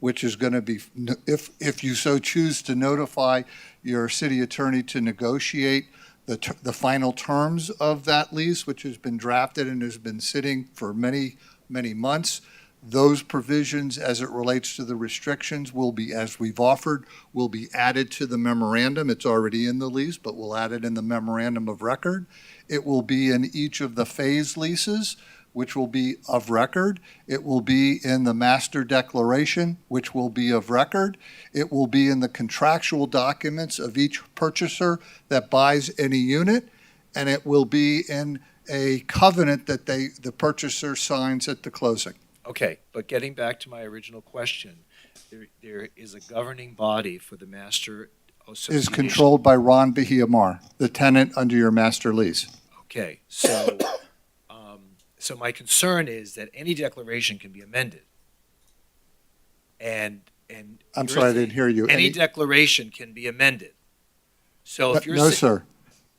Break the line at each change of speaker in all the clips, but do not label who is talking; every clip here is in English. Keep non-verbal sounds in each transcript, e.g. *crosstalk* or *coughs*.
which is going to be, if, if you so choose to notify your city attorney to negotiate the, ter- the final terms of that lease, which has been drafted and has been sitting for many, many months, those provisions as it relates to the restrictions will be, as we've offered, will be added to the memorandum. It's already in the lease, but we'll add it in the memorandum of record. It will be in each of the phase leases, which will be of record. It will be in the master declaration, which will be of record. It will be in the contractual documents of each purchaser that buys any unit. And it will be in a covenant that they, the purchaser signs at the closing.
Okay, but getting back to my original question, there, there is a governing body for the master association.
is controlled by Ron Bahiamar, the tenant under your master lease.
Okay, so, *coughs* um, so my concern is that any declaration can be amended. And, and.
I'm sorry, I didn't hear you.
Any
Any-
declaration can be amended. So if you're.
No,
sa-
sir.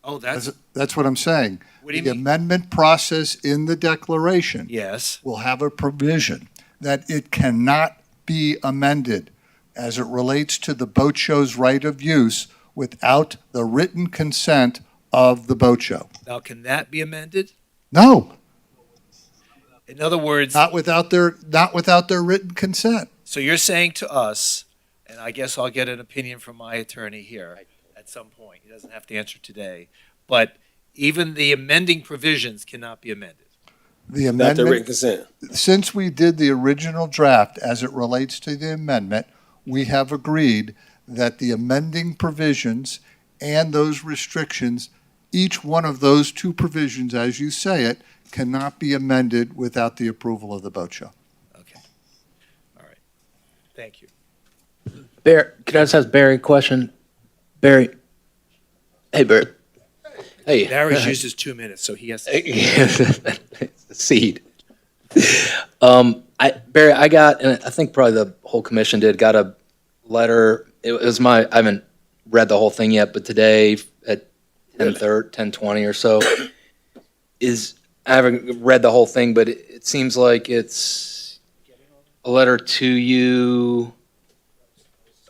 Oh, that's,
That's, that's what I'm saying.
what do you
The
mean?
amendment process in the declaration
Yes,
will have a provision that it cannot be amended as it relates to the boat show's right of use without the written consent of the boat show.
now can that be amended?
No,
In other words,
not without their, not without their written consent.
So you're saying to us, and I guess I'll get an opinion from my attorney here at some point, he doesn't have to answer today, but even the amending provisions cannot be amended.
The
Not the
amendment
written consent.
since we did the original draft as it relates to the amendment, we have agreed that the amending provisions and those restrictions, each one of those two provisions, as you say it, cannot be amended without the approval of the boat show.
Okay. All right. Thank you.
Barry, can I just ask Barry a question? Barry, hey Barry, hey.
Darius uses two minutes, so he has to.
*laughs* Seed. Um, I Barry, I got, and I think probably the whole commission did, got a letter. It was my, I haven't read the whole thing yet, but today at ten thirty, ten twenty or so is. I haven't read the whole thing, but it, it seems like it's a letter to you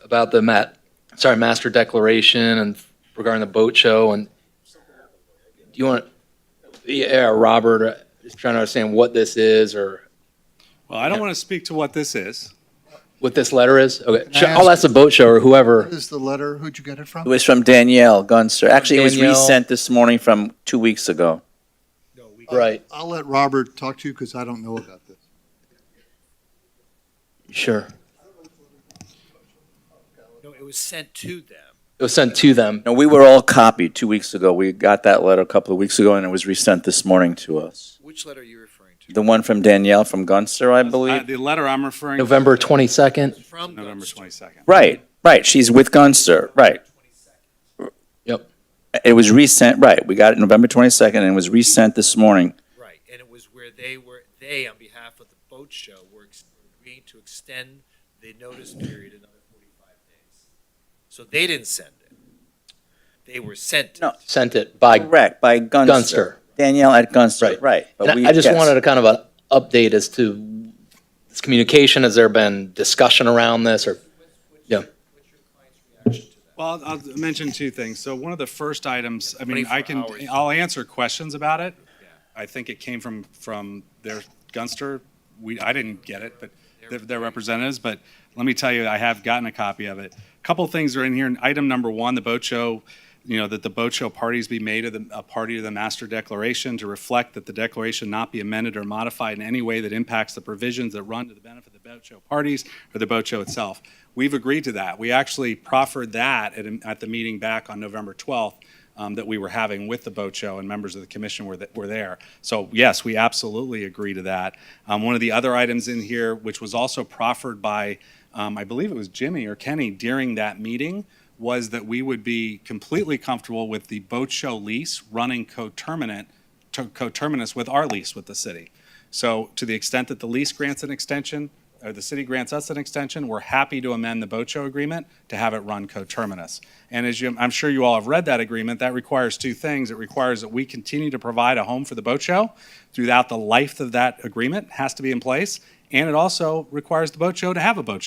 about the mat, sorry, master declaration and regarding the boat show and do you want, yeah, Robert, uh, just trying to understand what this is or
Well, I don't want to speak to what this is.
what this letter is? Okay,
Can I
Sure, I'll
ask-
ask the boat show or whoever.
What is the letter? Who'd you get it
It
from?
was from Danielle Gunster. Actually, it was
Danielle.
resent this morning from two weeks ago.
No, we-
Right,
I'll let Robert talk to you because I don't know about this.
sure.
No, it was sent to them.
It was sent to them.
No, we were all copied two weeks ago. We got that letter a couple of weeks ago, and it was resent this morning to us.
Which letter are you referring to?
The one from Danielle from Gunster, I
Uh,
believe.
The letter I'm referring. to-
November 22nd.
From
November
Gunster.
22nd.
Right, right. She's with Gunster. Right.
Yep.
It was resent. Right. We got it November 22nd, and it was resent this morning.
Right, and it was where they were, they, on behalf of the boat show, were ex- agreeing to extend the notice period another forty-five days. So they didn't send it. They were sent. it.
No.
Sent it by
Correct, by Gunster.
Gunster.
Danielle at Gunster.
Right.
Right. But
And
we-
I I just
yes.
wanted a kind of an update as to this communication. Has there been discussion around this or? Yeah.
Well, I'll I'll mention two things. So one of the first items, I mean, I
24
can,
hours.
I'll answer questions about it.
Yeah.
I think it came from, from their Gunster. We, I didn't get it, but their- their representatives, but let me tell you, I have gotten a copy of it. Couple things are in here. And Item number one, the boat show, you know, that the boat show parties be made of the, a party to the master declaration to reflect that the declaration not be amended or modified in any way that impacts the provisions that run to the benefit of the boat show parties or the boat show itself. We've agreed to that. We actually proffered that at, a- at the meeting back on November 12th um, that we were having with the boat show and members of the commission were, th- were there. So yes, we absolutely agree to that. Um, one of the other items in here, which was also proffered by, um, I believe it was Jimmy or Kenny during that meeting, was that we would be completely comfortable with the boat show lease running coterminant, to- coterminous with our lease with the city. So to the extent that the lease grants an extension, or the city grants us an extension, we're happy to amend the boat show agreement to have it run coterminous. And as you, I'm sure you all have read that agreement, that requires two things. It requires that we continue to provide a home for the boat show throughout the life of that agreement, has to be in place. And it also requires the boat show to have a boat show.